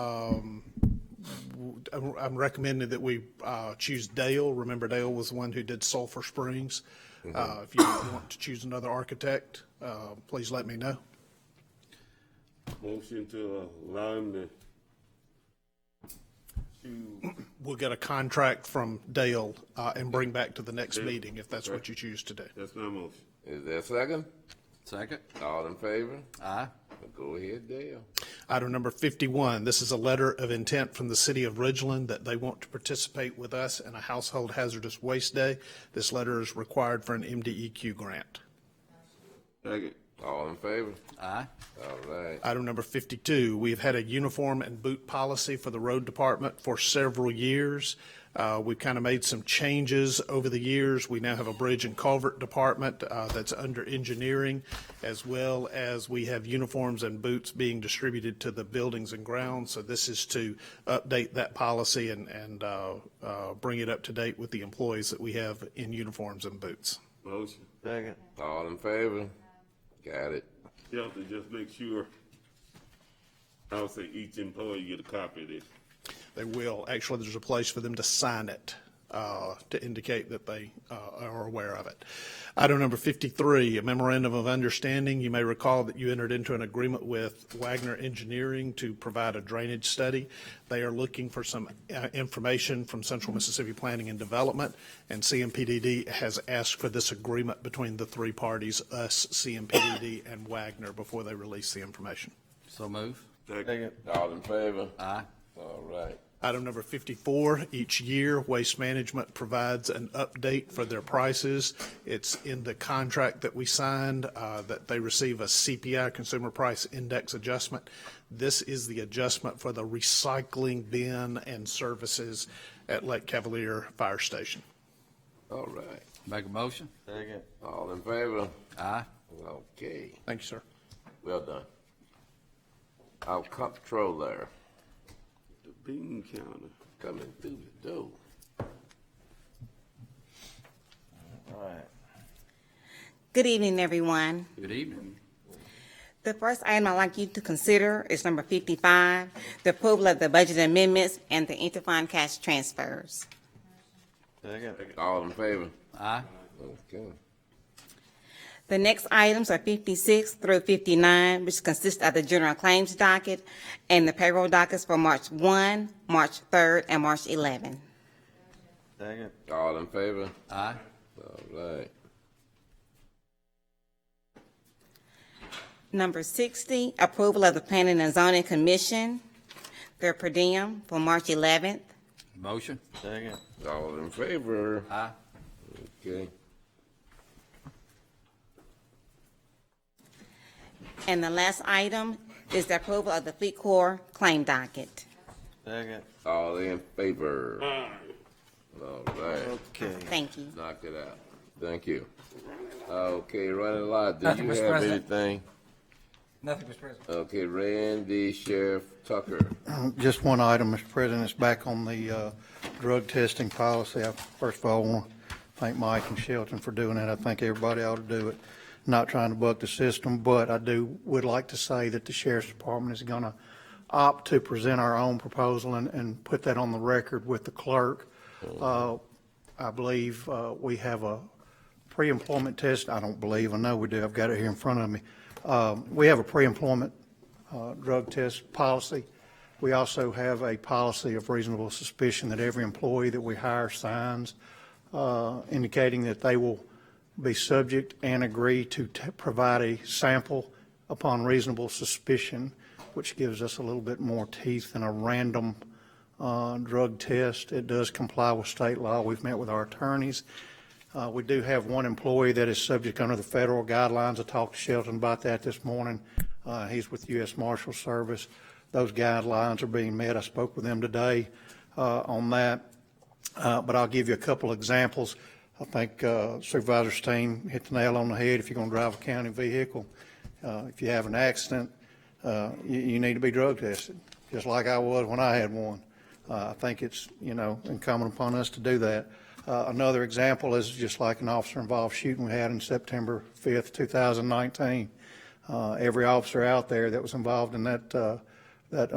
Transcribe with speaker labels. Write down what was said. Speaker 1: um, w- I'm- I'm recommending that we uh, choose Dale. Remember Dale was the one who did Sulphur Springs. Uh, If you want to choose another architect, uh, please let me know.
Speaker 2: Motion to allow him to choose
Speaker 1: We'll get a contract from Dale uh, and bring back to the next meeting if that's what you choose to do.
Speaker 2: that's my motion.
Speaker 3: Is there a second?
Speaker 4: Second.
Speaker 3: All in favor?
Speaker 4: Aye.
Speaker 3: Go ahead, Dale.
Speaker 1: Item number 51, this is a letter of intent from the city of Ridgeland that they want to participate with us in a household hazardous waste day. This letter is required for an MDEQ grant.
Speaker 2: Second.
Speaker 3: All in favor?
Speaker 4: Aye.
Speaker 3: All right.
Speaker 1: Item number 52, we've had a uniform and boot policy for the road department for several years. Uh, We've kind of made some changes over the years. We now have a bridge and culvert department uh, that's under engineering, as well as we have uniforms and boots being distributed to the buildings and grounds. So this is to update that policy and, and uh, uh, bring it up to date with the employees that we have in uniforms and boots.
Speaker 2: Motion.
Speaker 5: Second.
Speaker 3: All in favor? Got it.
Speaker 2: You have to just make sure, I would say each employee get a copy of this.
Speaker 1: They will. Actually, there's a place for them to sign it uh, to indicate that they uh, are aware of it. Item number 53, a memorandum of understanding. You may recall that you entered into an agreement with Wagner Engineering to provide a drainage study. They are looking for some uh, information from Central Mississippi Planning and Development, and CMPDD has asked for this agreement between the three parties, us, CMPDD, and Wagner, before they release the information.
Speaker 4: So move.
Speaker 2: Second.
Speaker 3: All in favor?
Speaker 4: Aye.
Speaker 3: All right.
Speaker 1: Item number 54, each year, Waste Management provides an update for their prices. It's in the contract that we signed, uh, that they receive a CPI, Consumer Price Index Adjustment. This is the adjustment for the recycling bin and services at Lake Cavalier Fire Station.
Speaker 3: All right.
Speaker 4: Make a motion.
Speaker 5: Second.
Speaker 3: All in favor?
Speaker 4: Aye.
Speaker 3: Okay.
Speaker 1: Thank you, sir.
Speaker 3: Well done. Our comptroller
Speaker 2: The bean counter.
Speaker 3: coming through the door.
Speaker 5: All right.
Speaker 6: Good evening, everyone.
Speaker 4: Good evening.
Speaker 6: The first item I'd like you to consider is number 55, the approval of the budget amendments and the interfund cash transfers.
Speaker 5: Second.
Speaker 3: All in favor?
Speaker 4: Aye.
Speaker 3: Okay.
Speaker 6: The next items are 56 through 59, which consist of the general claims docket and the payroll dockets for March 1, March 3rd, and March 11.
Speaker 5: Second.
Speaker 3: All in favor?
Speaker 4: Aye.
Speaker 3: All right.
Speaker 6: Number 60, approval of the Planning and Zoning Commission, their per diem for March 11th.
Speaker 4: Motion.
Speaker 5: Second.
Speaker 3: All in favor?
Speaker 4: Aye.
Speaker 3: Okay.
Speaker 6: And the last item is the approval of the Fleet Corps claim docket.
Speaker 5: Second.
Speaker 3: All in favor? All right.
Speaker 5: Okay.
Speaker 6: Thank you.
Speaker 3: Knock it out. Thank you. Okay, running lot, do
Speaker 7: Nothing,
Speaker 3: you
Speaker 7: Mr.
Speaker 3: have
Speaker 7: President.
Speaker 3: anything?
Speaker 7: Nothing, Mr. President.
Speaker 3: Okay, Randy Sheriff Tucker.
Speaker 8: Just one item, Mr. President, it's back on the uh, drug testing policy. I First of all, want to thank Mike and Shelton for doing it. I think everybody ought to do it. Not trying to buck the system, but I do, would like to say that the sheriff's department is going to opt to present our own proposal and, and put that on the record with the clerk. Uh, I believe uh, we have a pre-employment test, I don't believe, I know we do, I've got it here in front of me. Um, We have a pre-employment uh, drug test policy. We also have a policy of reasonable suspicion that every employee that we hire signs uh, indicating that they will be subject and agree to t- provide a sample upon reasonable suspicion, which gives us a little bit more teeth than a random uh, drug test. It does comply with state law. We've met with our attorneys. Uh, We do have one employee that is subject under the federal guidelines. I talked to Shelton about that this morning. Uh, He's with U.S. Marshal Service. Those guidelines are being met. I spoke with them today uh, on that. Uh, But I'll give you a couple examples. I think uh, Supervisor Steen hit the nail on the head. If you're going to drive a county vehicle, uh, if you have an accident, uh, you, you need to be drug tested, just like I was when I had one. Uh, I think it's, you know, incumbent upon us to do that. Uh, Another example is just like an officer-involved shooting we had in September 5th, 2019. Uh, Every officer out there that was involved in that, uh, that